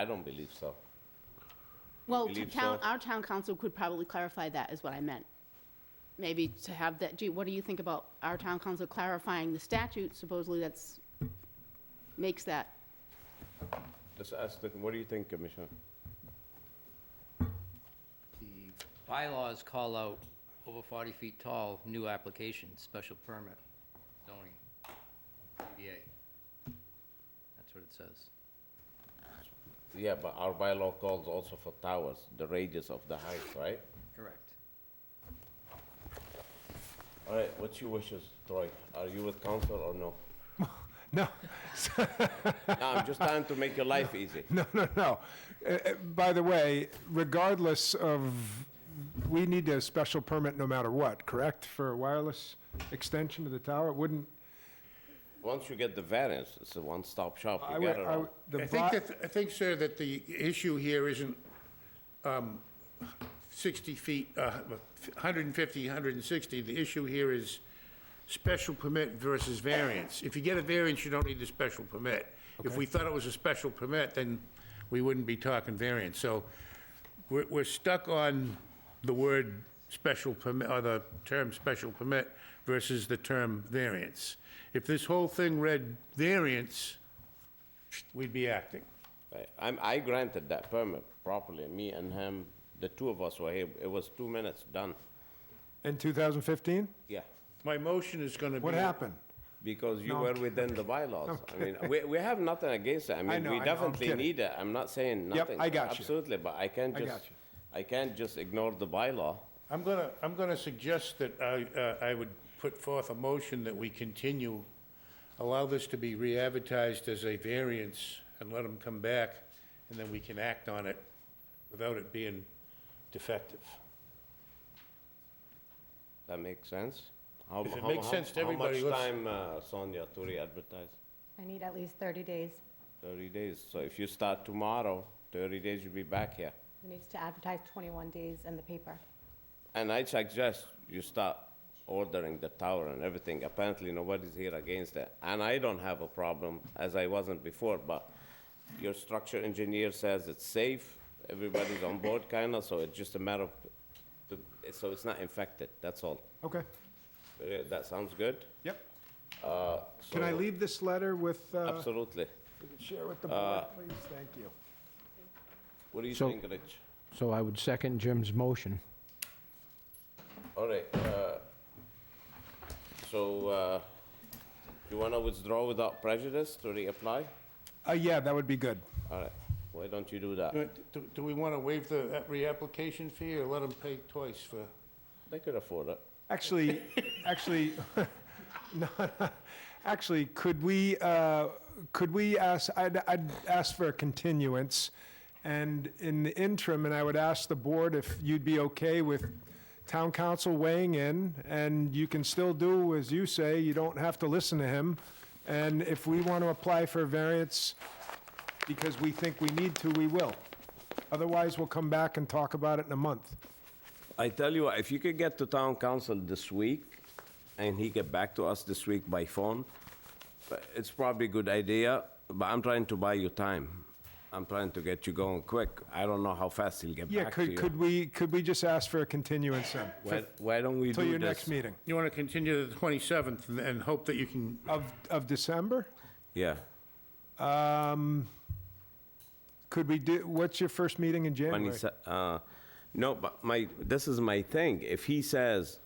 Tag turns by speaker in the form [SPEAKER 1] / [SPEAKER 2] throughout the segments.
[SPEAKER 1] I don't believe so.
[SPEAKER 2] Well, to
[SPEAKER 1] believe
[SPEAKER 2] town,
[SPEAKER 1] so.
[SPEAKER 2] our town council could probably clarify that, is what I meant. Maybe to have that, gee, what do you think about our town council clarifying the statute? Supposedly that's, makes that,
[SPEAKER 1] Let's ask, the- what do you think, Commissioner?
[SPEAKER 3] The bylaws call out over 40 feet tall, new application, special permit, zoning, ZBA. That's what it says.
[SPEAKER 1] Yeah, but our bylaw calls also for towers, the radius of the height, right?
[SPEAKER 3] Correct.
[SPEAKER 1] All right, what's your wishes, Troy? Are you with council or no?
[SPEAKER 4] No,
[SPEAKER 1] No, I'm just trying to make your life easy.
[SPEAKER 4] no, no, no. Uh, uh, By the way, regardless of, we need a special permit no matter what, correct? For a wireless extension of the tower? It Wouldn't,
[SPEAKER 1] Once you get the variance, it's a one-stop shop.
[SPEAKER 4] I
[SPEAKER 1] You
[SPEAKER 4] would,
[SPEAKER 1] got it
[SPEAKER 4] I
[SPEAKER 1] all.
[SPEAKER 4] would, the
[SPEAKER 5] I think
[SPEAKER 4] bo-
[SPEAKER 5] that, I think, sir, that the issue here isn't um, 60 feet, uh, 150, 160. The issue here is special permit versus variance. If you get a variance, you don't need the special permit. If we thought it was a special permit, then we wouldn't be talking variance. So we're, we're stuck on the word special permit, or the term special permit versus the term variance. If this whole thing read variance, we'd be acting.
[SPEAKER 1] Right, I'm, I granted that permit properly, me and him, the two of us were here, it was two minutes, done.
[SPEAKER 4] in 2015?
[SPEAKER 1] Yeah,
[SPEAKER 5] My motion is gonna be.
[SPEAKER 4] What happened?
[SPEAKER 1] because you
[SPEAKER 4] No, I'm
[SPEAKER 1] were
[SPEAKER 4] kidding,
[SPEAKER 1] within the bylaws. I mean, we, we have nothing against it, I mean,
[SPEAKER 4] know, I
[SPEAKER 1] we
[SPEAKER 4] know, I'm
[SPEAKER 1] definitely
[SPEAKER 4] kidding.
[SPEAKER 1] need it, I'm not saying
[SPEAKER 4] Yep,
[SPEAKER 1] nothing.
[SPEAKER 4] I got you.
[SPEAKER 1] Absolutely, but I can't
[SPEAKER 4] I
[SPEAKER 1] just,
[SPEAKER 4] got you.
[SPEAKER 1] I can't just ignore the bylaw.
[SPEAKER 5] I'm gonna, I'm gonna suggest that I, uh, I would put forth a motion that we continue, allow this to be re-advertised as a variance and let them come back, and then we can act on it without it being defective.
[SPEAKER 1] That makes sense? How-
[SPEAKER 5] If it
[SPEAKER 1] how-
[SPEAKER 5] makes
[SPEAKER 1] how-
[SPEAKER 5] sense to everybody,
[SPEAKER 1] How much
[SPEAKER 5] let's-
[SPEAKER 1] time, uh, Sonia, to re-advertise?
[SPEAKER 6] I need at least 30 days.
[SPEAKER 1] Thirty days, so if you start tomorrow, thirty days you'll be back here.
[SPEAKER 6] It needs to advertise 21 days in the paper.
[SPEAKER 1] And I suggest you start ordering the tower and everything. Apparently, nobody's here against it. And I don't have a problem, as I wasn't before, but your structure engineer says it's safe, everybody's on board kinda, so it's just a matter of, the- so it's not infected, that's all.
[SPEAKER 4] Okay,
[SPEAKER 1] Uh, That sounds good?
[SPEAKER 4] yep.
[SPEAKER 1] Uh,
[SPEAKER 4] Can I
[SPEAKER 1] so-
[SPEAKER 4] leave this letter with, uh,
[SPEAKER 1] Absolutely.
[SPEAKER 4] share with the
[SPEAKER 1] uh,
[SPEAKER 4] board, please? Thank you.
[SPEAKER 1] What do you
[SPEAKER 7] So-
[SPEAKER 1] think, Rich?
[SPEAKER 7] So I would second Jim's motion.
[SPEAKER 1] All right, uh, so, uh, you wanna withdraw without prejudice to reapply?
[SPEAKER 4] Uh, yeah, that would be good.
[SPEAKER 1] All right, why don't you do that?
[SPEAKER 5] Do, do- do we wanna waive the uh, reapplication fee or let them pay twice for?
[SPEAKER 1] They could afford it.
[SPEAKER 4] Actually, actually, no, actually, could we, uh, could we ask, I'd, I'd ask for a continuance, and in the interim, and I would ask the board if you'd be okay with town council weighing in, and you can still do as you say, you don't have to listen to him, and if we want to apply for a variance because we think we need to, we will. Otherwise, we'll come back and talk about it in a month.
[SPEAKER 1] I tell you what, if you could get to town council this week, and he get back to us this week by phone, but it's probably a good idea, but I'm trying to buy you time. I'm trying to get you going quick. I don't know how fast he'll get
[SPEAKER 4] Yeah,
[SPEAKER 1] back to
[SPEAKER 4] could, could
[SPEAKER 1] you.
[SPEAKER 4] we, could we just ask for a continuance then?
[SPEAKER 1] Why- Why don't we
[SPEAKER 4] Till
[SPEAKER 1] do
[SPEAKER 4] your next
[SPEAKER 1] this?
[SPEAKER 4] meeting
[SPEAKER 5] You wanna continue to the twenty-seventh and, and hope that you can,
[SPEAKER 4] of, of December?
[SPEAKER 1] Yeah,
[SPEAKER 4] Um, Could we do, what's your first meeting in
[SPEAKER 1] when
[SPEAKER 4] January?
[SPEAKER 1] he sa- uh, no, but my, this is my thing. If he says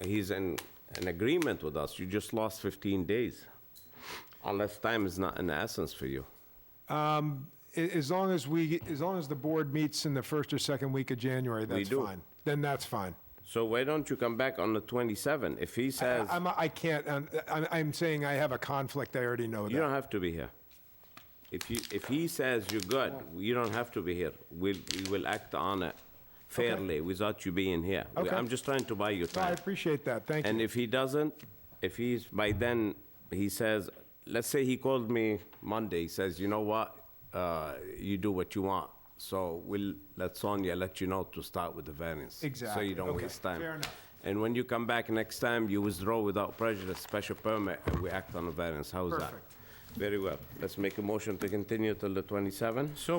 [SPEAKER 1] he's in, in agreement with us, you just lost 15 days. Unless time is not an essence for you.
[SPEAKER 4] A- As long as we, as long as the board meets in the first or second week of January, that's
[SPEAKER 1] do.
[SPEAKER 4] fine. Then that's fine.
[SPEAKER 1] So why don't you come back on the 27? If he says,
[SPEAKER 4] I'm, I can't, I'm, I'm- I'm saying I have a conflict, I already know
[SPEAKER 1] you
[SPEAKER 4] that.
[SPEAKER 1] don't have to be here. If you, if he says you're good, you don't have to be here. We'll, we will act on it fairly without you being here. We-
[SPEAKER 4] Okay.
[SPEAKER 1] I'm just trying to buy you
[SPEAKER 4] No, I
[SPEAKER 1] time.
[SPEAKER 4] appreciate that, thank
[SPEAKER 1] And
[SPEAKER 4] you.
[SPEAKER 1] if he doesn't, if he's, by then, he says, let's say he called me Monday, he says, you know what? Uh, You do what you want. So we'll, let Sonia let you know to start with the variance. So
[SPEAKER 4] Exactly.
[SPEAKER 1] you don't
[SPEAKER 4] Okay.
[SPEAKER 1] waste time.
[SPEAKER 4] Fair enough.
[SPEAKER 1] And when you come back next time, you withdraw without prejudice, special permit, and we act on the variance. How's that?
[SPEAKER 4] Perfect.
[SPEAKER 1] Very well. Let's make a motion to continue till the 27th.
[SPEAKER 5] so